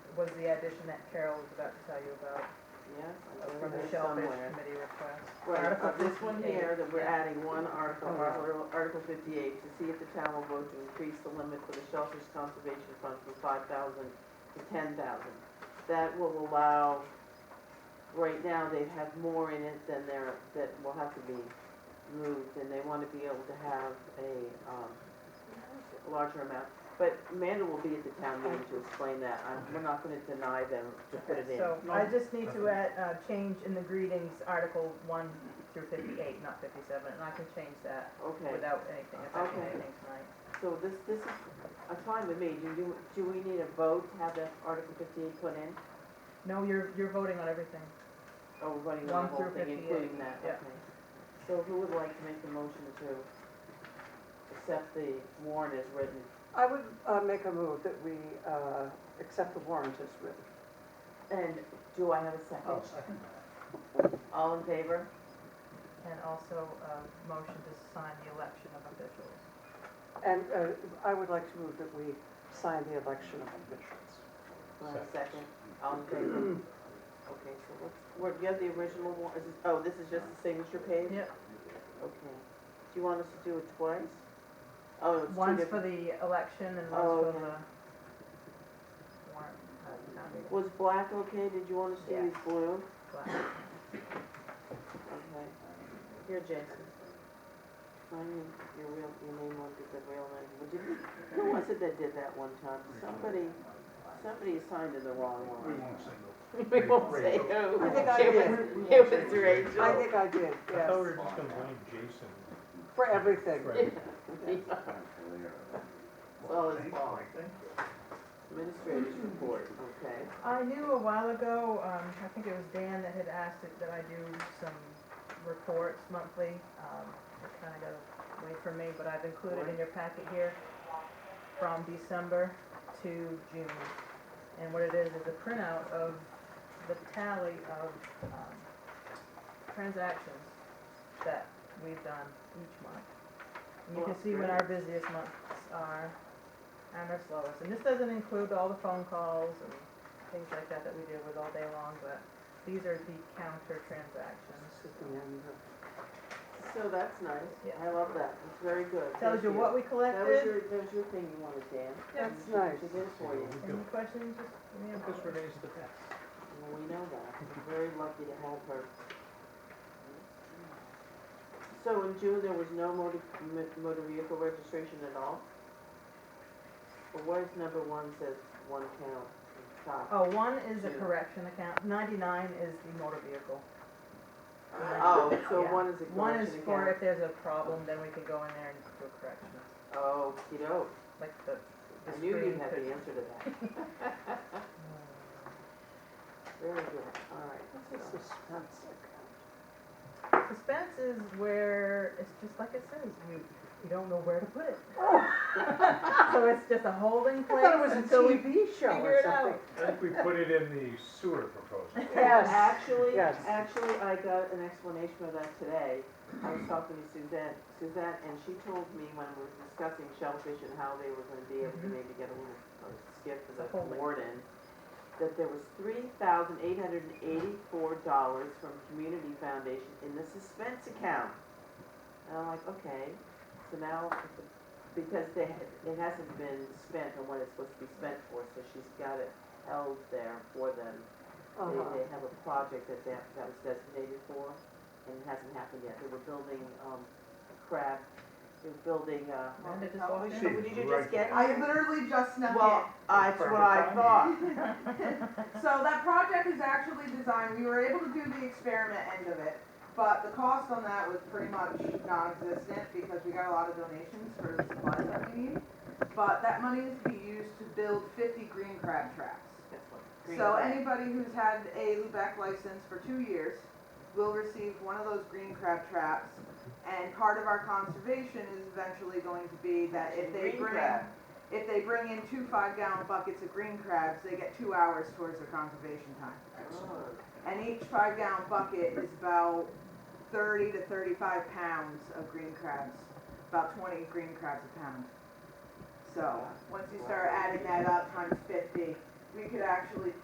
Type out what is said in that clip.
was the addition that Carol was about to tell you about, Yes, I uh, believe from the there's Shellfish somewhere. Committee request. Right, Article uh, this one 58. here, that we're adding one article, Oh, wow. Article Article fifty-eight, to see if the town will vote to increase the limit for the Shellfish Conservation Fund from five thousand to ten thousand. That will allow, right now, they have more in it than there, that will have to be moved, and they wanna be able to have a, um, larger amount. But Amanda will be at the town meeting to explain that, I'm, we're not gonna deny them to put it in. So I just need to add, uh, change in the greetings, Article one through fifty-eight, not fifty-seven, and I can change that Okay. without anything, affecting Okay. anything tonight. So this, this is, uh, fine with me, do, do, do we need a vote to have that Article fifty-eight put in? No, you're, you're voting on everything. Or we're voting on the One whole through thing, 58, including that, yeah. okay. So who would like to make the motion to accept the warrant as written? I would uh, make a move that we uh, accept the warrant as written. And do I have a Oh, second? second All in favor? And also, uh, motion to sign the election of officials. And uh, I would like to move that we sign the election of officials. Do I have a second? All in favor? Okay, so let's, where, you have the original one, is this, oh, this is just the signature page? Yep, Okay. Do you want us to do it twice? Oh, it's two different. one's for the election and Oh, one's for okay. the warrant, uh, town meeting. Was black okay? Did you want us to Yeah. use blue? But- Okay. Here, Jason. I mean, your real, your name won't be the real name. Would you, who was it that did that one time? Somebody, somebody signed in the wrong We one. won't single. We won't say who. I think I It was- did. It was Rachel. I think I I did, thought we were yes, just gonna blame Jason. for everything. Right. Yeah. It's all his fault. Administrator's report, okay. I knew a while ago, um, I think it was Dan that had asked it, that I do some reports monthly. Um, it kinda got away from me, but I've included in your packet here from December to June. And what it is, is a printout of the tally of, um, transactions that we've done each month. And you can see when our busiest months are and our slowest. And this doesn't include all the phone calls and things like that that we deal with all day long, but these are the counter transactions. This is the end of- So that's nice. Yeah. I love that. It's very good. Tells you Thank what we That was collected. your, that was your thing you wanted, Dan. That's nice. She did it for you. Any questions, just, give me a Because moment. Renee's the best. Well, we know that. We're very lucky to have her. So in June, there was no motor, mo- motor vehicle registration at all? But where's number one says one count, at the top? Oh, one is a Two. correction account, ninety-nine is the motor vehicle. Oh, so Yeah. one is a One is correction for account? if there's a problem, then we can go in there and do corrections, Oh, kiddo. like the, the I knew you screen had could. the answer to that. Very good, all right. This is So- suspense account. Suspense is where, it's just like it says, you, you don't know where to put it. So it's just a holding I place thought it was a until we TV show figure or it something. out. I think we put it in the sewer proposal. Yes, Actually, yes. actually, I got an explanation of that today. I was talking to Suzette, Suzette, and she told me when we were discussing shellfish and how they were gonna be able to Mm-hmm. Mhm. maybe get a little uh, skip for A the holding. warden, that there was three thousand eight hundred and eighty-four dollars from Community Foundation in the suspense account. And I'm like, okay, so now, because they, it hasn't been spent on what it's supposed to be spent for, so she's got it held there for them they, Uh-huh. they have a project that, that, that was designated for, and it hasn't happened yet, they were building, um, a crab, they were building, uh, Wanda just walked She- in. did you just Right. get? I literally just snuck Well, that's what I thought, in. So that project is actually designed, we were able to do the experiment end of it, but the cost on that was pretty much non-existent because we got a lot of donations for the supplies that we need. But that money is to be used to build fifty green crab traps. that's what. So anybody who's had a Lubec license for two years will receive one of those green crab traps. And part of our conservation is eventually going to be that if they Green bring, crab. if they bring in two five gallon buckets of green crabs, they get two hours towards their conservation time. And each five gallon bucket is about thirty to thirty-five pounds of green crabs, about twenty green crabs a pound. So, once you start adding that up times fifty, we could actually